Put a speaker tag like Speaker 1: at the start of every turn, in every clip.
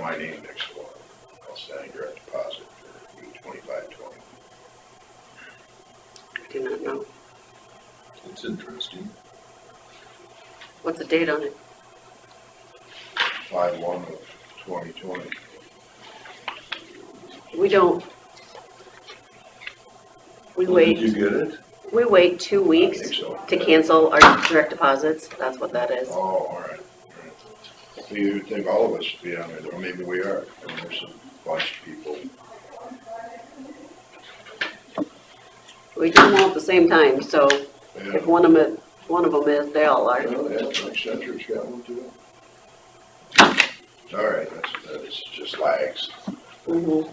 Speaker 1: my name next to one, I'll sign direct deposit for E twenty-five twenty.
Speaker 2: I did not know.
Speaker 1: It's interesting.
Speaker 2: What's the date on it?
Speaker 1: Five one of twenty twenty.
Speaker 2: We don't. We wait,
Speaker 3: Did you get it?
Speaker 2: we wait two weeks to cancel our direct deposits. That's what that is.
Speaker 1: Oh, all right, all right. So you would think all of us should be on it, or maybe we are, I mean, there's a bunch of people.
Speaker 2: We do them all at the same time, so
Speaker 1: Yeah.
Speaker 2: if one of them, one of them is, they all are.
Speaker 1: Well, yeah, Mike Centric's got one too. All right, that's, that's just lags.
Speaker 2: Mm-hmm.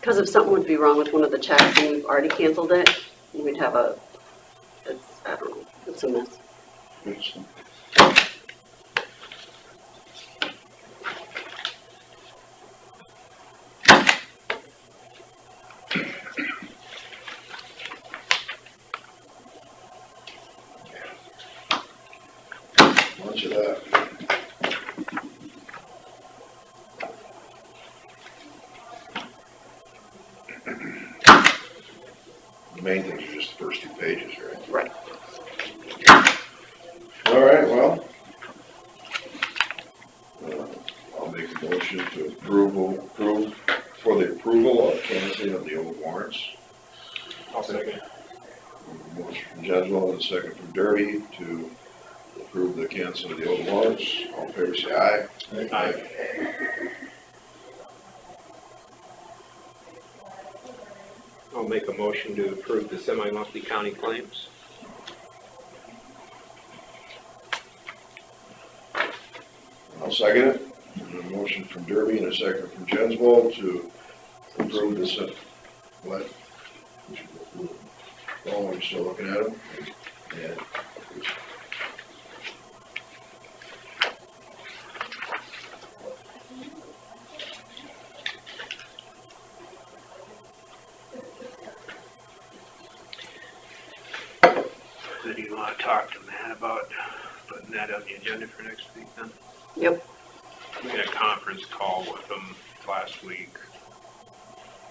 Speaker 2: Because if something would be wrong with one of the checks and we've already canceled it, we'd have a, it's, I don't know, it's a mess.
Speaker 1: It's- Bunch of that. The main things are just the first two pages, right?
Speaker 2: Right.
Speaker 1: All right, well. uh, I'll make a motion to approval, approve, for the approval of canceling of the old warrants.
Speaker 4: I'll second.
Speaker 1: Motion from Jeswell and a second from Derby to approve the cancel of the old warrants. All in favor, say aye.
Speaker 4: Aye. I'll make a motion to approve the semi-monthly county claims.
Speaker 1: I'll second it. And a motion from Derby and a second from Jeswell to approve this, uh, what? Oh, we're still looking at them? Yeah.
Speaker 4: Then you want to talk to Matt about putting that on the agenda for next week then?
Speaker 2: Yep.
Speaker 4: We had a conference call with them last week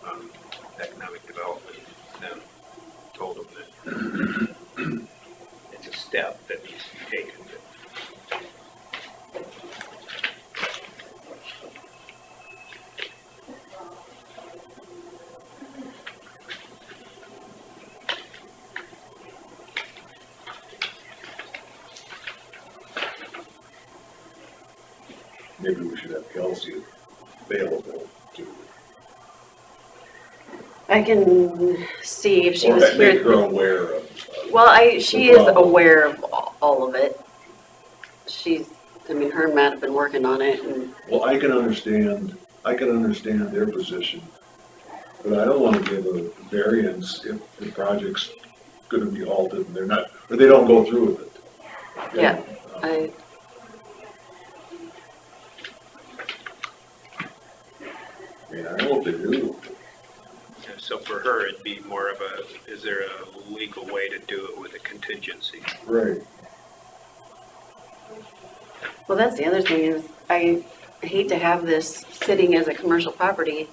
Speaker 4: on economic development and told them that it's a step that needs to be taken.
Speaker 1: Maybe we should have Kelsey available to.
Speaker 2: I can see if she was
Speaker 1: Or make her
Speaker 2: here.
Speaker 1: aware of.
Speaker 2: Well, I, she is
Speaker 1: Well-
Speaker 2: aware of a- all of it. She's, I mean, her and Matt have been working on it and
Speaker 3: Well, I can understand, I can understand their position, but I don't wanna give a variance if the project's gonna be halted and they're not, or they don't go through with it.
Speaker 2: Yeah. I,
Speaker 3: I mean, I hope they do.
Speaker 4: And So for her, it'd be more of a, is there a legal way to do it with a contingency?
Speaker 3: Right.
Speaker 2: well, that's the other thing is I hate to have this sitting as a commercial property.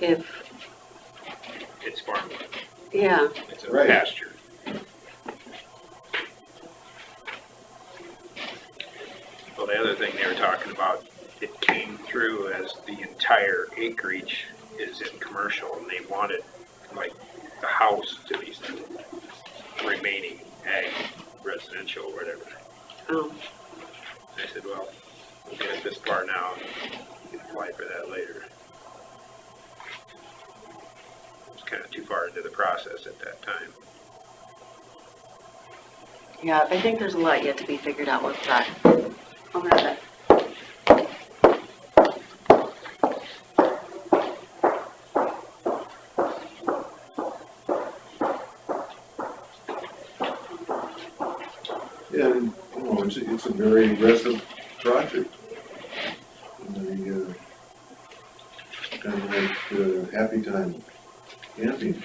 Speaker 2: If,
Speaker 4: It's farmland,
Speaker 2: yeah,
Speaker 4: it's a
Speaker 3: Right.
Speaker 4: pasture. Well, the other thing they were talking about, it came through as the entire acreage is in commercial and they wanted like the house to be remaining ag residential or whatever.
Speaker 2: oh,
Speaker 4: I said, well, we'll get it this far now, and apply for that later. It's kind of too far into the process at that time.
Speaker 2: yeah, I think there's a lot yet to be figured out with that. I'll have that.
Speaker 3: And, you know, it's, it's a very aggressive project. And they, uh, kind of like, uh, happy time camping.